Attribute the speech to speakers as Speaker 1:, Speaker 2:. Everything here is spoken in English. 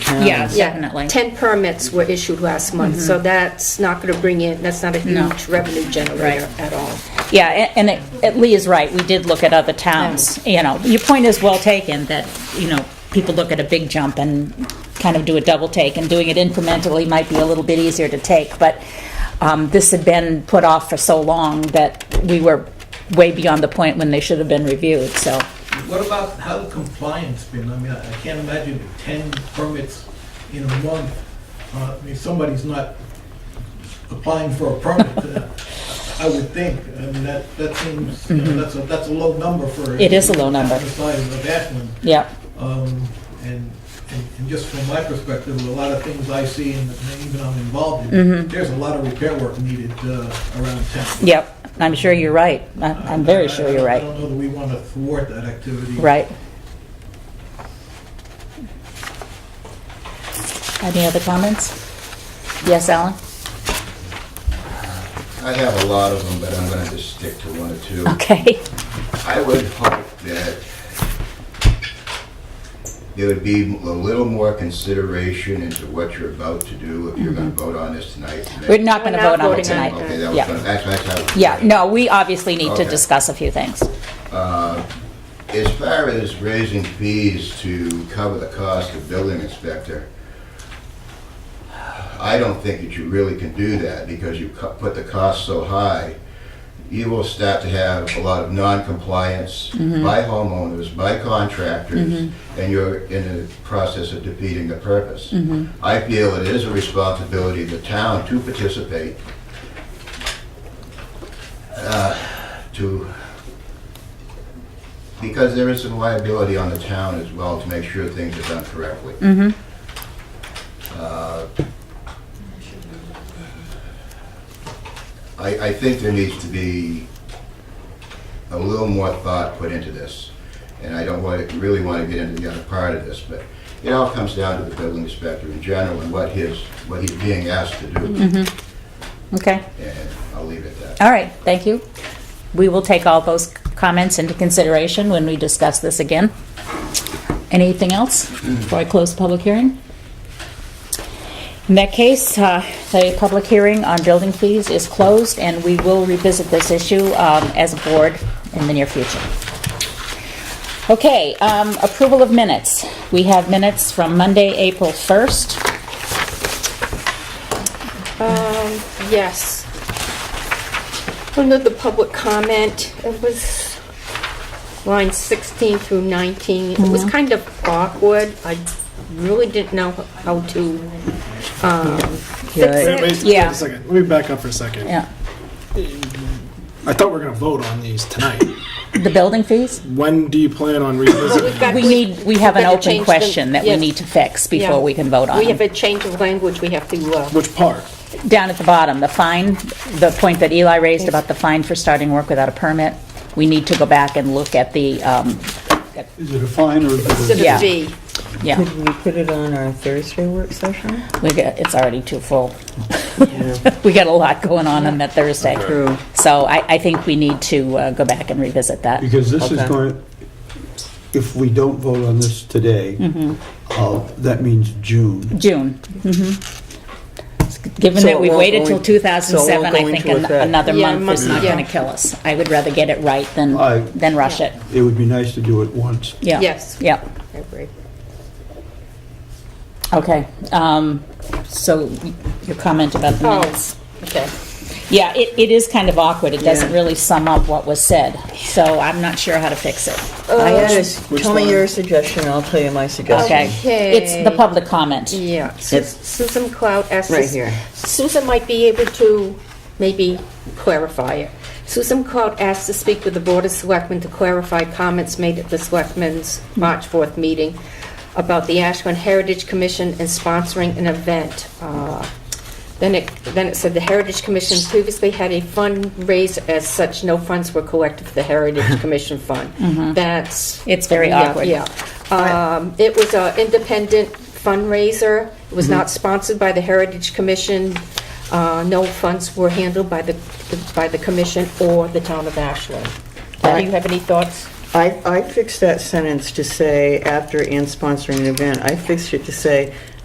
Speaker 1: Yes,
Speaker 2: Yeah,
Speaker 1: definitely. Mm-hmm.
Speaker 2: 10 permits were issued last month, so that's not going to bring in, that's not a
Speaker 1: No.
Speaker 2: huge revenue generator
Speaker 1: Right.
Speaker 2: at all.
Speaker 1: Yeah, a- and it- it- Lee is right, we did look at other towns, you know, your point is well taken, that, you know, people look at a big jump and kind of do a double take, and doing it incrementally might be a little bit easier to take, but um, this had been put off for so long that we were way beyond the point when they should have been reviewed, so,
Speaker 3: What about how compliance been? I mean, I I can't imagine 10 permits in a month. Uh, I mean, somebody's not applying for a permit, uh, I would think. I mean, that, that seems, you know, that's a, that's a low number for.
Speaker 1: Mm-hmm. It is a low number.
Speaker 3: The size of Ashland.
Speaker 1: yeah.
Speaker 3: Um, And, and and just from my perspective, a lot of things I see and that even I'm involved in, there's a lot of repair work needed uh, around town.
Speaker 1: Mm-hmm. Yep, I'm sure you're right, I- I'm
Speaker 3: I-
Speaker 1: very
Speaker 3: I-
Speaker 1: sure you're
Speaker 3: I
Speaker 1: right,
Speaker 3: don't know that we want to thwart that activity.
Speaker 1: right. Any other comments? Yes, Alan?
Speaker 4: I have a lot of them, but I'm gonna just stick to one or two.
Speaker 1: Okay.
Speaker 4: I would hope that there would be a little more consideration into what you're about to do, if you're gonna vote on this tonight.
Speaker 1: Mm-hmm. We're not going to
Speaker 2: We're not
Speaker 1: vote on it
Speaker 2: voting on it
Speaker 1: tonight.
Speaker 4: Okay, that was,
Speaker 1: Yeah.
Speaker 4: gonna- that's, that's how.
Speaker 1: Yeah, no, we obviously need to
Speaker 4: Okay.
Speaker 1: discuss a few things.
Speaker 4: As far as raising fees to cover the cost of building inspector, I don't think that you really can do that because you cu- put the cost so high. You will start to have a lot of non-compliance by homeowners, by contractors, and you're in the process of defeating the purpose. I feel it is a responsibility of the town to participate, uh, to because there is some liability on the town as well to make sure things are done correctly. Uh, I, I think there needs to be a little more thought put into this, and I don't want, really want to get into the other part of this, but it all comes down to the building inspector in general and what his, what he's being asked to do,
Speaker 1: Okay,
Speaker 4: and I'll leave it at that.
Speaker 1: all right, thank you. We will take all those comments into consideration when we discuss this again. Anything else before I close the public hearing? In that case, uh, the public hearing on building fees is closed, and we will revisit this issue um, as a board in the near future. Okay, um, approval of minutes. We have minutes from Monday, April 1st.
Speaker 2: Um, Yes. Under the public comment, it was line 16 through 19. It
Speaker 1: Mm-hmm.
Speaker 2: was kind of awkward. I really didn't know how to um,
Speaker 1: Right.
Speaker 2: fix
Speaker 5: Wait,
Speaker 2: it.
Speaker 5: wait, wait
Speaker 1: Yeah.
Speaker 5: a second. Let me back up for a second.
Speaker 1: Yeah,
Speaker 5: I thought we were going to vote on these tonight.
Speaker 1: the building fees?
Speaker 5: When do you plan on revisiting?
Speaker 2: We've got-
Speaker 1: We need, we have an
Speaker 2: better change
Speaker 1: open
Speaker 2: the-
Speaker 1: question that we
Speaker 2: yes.
Speaker 1: need to fix
Speaker 2: Yeah.
Speaker 1: before we can vote on
Speaker 2: We have
Speaker 1: it.
Speaker 2: a change of language we have to, uh,
Speaker 5: Which part?
Speaker 1: Down at the bottom, the fine, the point that Eli raised about the fine for starting work without a permit, we need to go back and look at the, um,
Speaker 6: Is it a fine or is it
Speaker 2: consider
Speaker 1: Yeah.
Speaker 2: D.
Speaker 1: yeah,
Speaker 7: Could we put it on our Thursday work session?
Speaker 1: we got, it's already too full. We got a lot going on on that Thursday.
Speaker 7: True.
Speaker 1: So I, I think we need to uh, go back and revisit that.
Speaker 6: a, because this is
Speaker 7: Okay.
Speaker 6: going, if we don't vote on this today, uh, that means June.
Speaker 1: June. Mm-hmm. Given
Speaker 7: So
Speaker 1: that
Speaker 7: it
Speaker 1: we
Speaker 7: won't
Speaker 1: waited
Speaker 7: go
Speaker 1: till
Speaker 7: in-
Speaker 1: 2007,
Speaker 7: so
Speaker 1: I
Speaker 7: it won't go
Speaker 1: think
Speaker 7: into
Speaker 1: an-
Speaker 7: effect.
Speaker 1: another
Speaker 2: Yeah,
Speaker 1: month is
Speaker 2: month,
Speaker 1: not
Speaker 2: yeah.
Speaker 1: going to kill us. I would rather get it right than,
Speaker 6: I-
Speaker 1: than rush it.
Speaker 6: It would be nice to do it once.
Speaker 1: Yeah.
Speaker 2: Yes.
Speaker 1: Yeah,
Speaker 2: I agree.
Speaker 1: okay. Um, So y- your comment about the
Speaker 2: Oh,
Speaker 1: minutes.
Speaker 2: okay.
Speaker 1: Yeah, it, it is kind of awkward. It doesn't
Speaker 7: Yeah.
Speaker 1: really sum up what was said, so I'm not sure how to fix it.
Speaker 7: I had a, s-
Speaker 5: Which
Speaker 7: tell me
Speaker 5: one?
Speaker 7: your suggestion, I'll tell you my
Speaker 1: Okay.
Speaker 7: suggestion.
Speaker 1: It's the
Speaker 2: Okay.
Speaker 1: public comment.
Speaker 2: Yeah, Sus- Susan Cloud asks.
Speaker 7: Right here.
Speaker 2: Susan might be able to maybe clarify it. Susan Cloud asked to speak with the Board of Selectmen to clarify comments made at the Selectmen's March 4th meeting about the Ashland Heritage Commission and sponsoring an event. Uh, Then it, then it said the Heritage Commission previously had a fundraiser as such, no funds were collected for the Heritage Commission Fund.
Speaker 7: Mm-hmm.
Speaker 2: That's.
Speaker 1: It's very
Speaker 2: Yeah,
Speaker 1: awkward.
Speaker 2: Yeah. Um, It was an independent fundraiser. It was
Speaker 1: Mm-hmm.
Speaker 2: not sponsored by the Heritage Commission. Uh, No funds were handled by the, by the commission or the town of Ashland. Do you have any thoughts?
Speaker 7: I, I fixed that sentence to say, after and sponsoring an event, I fixed it to say,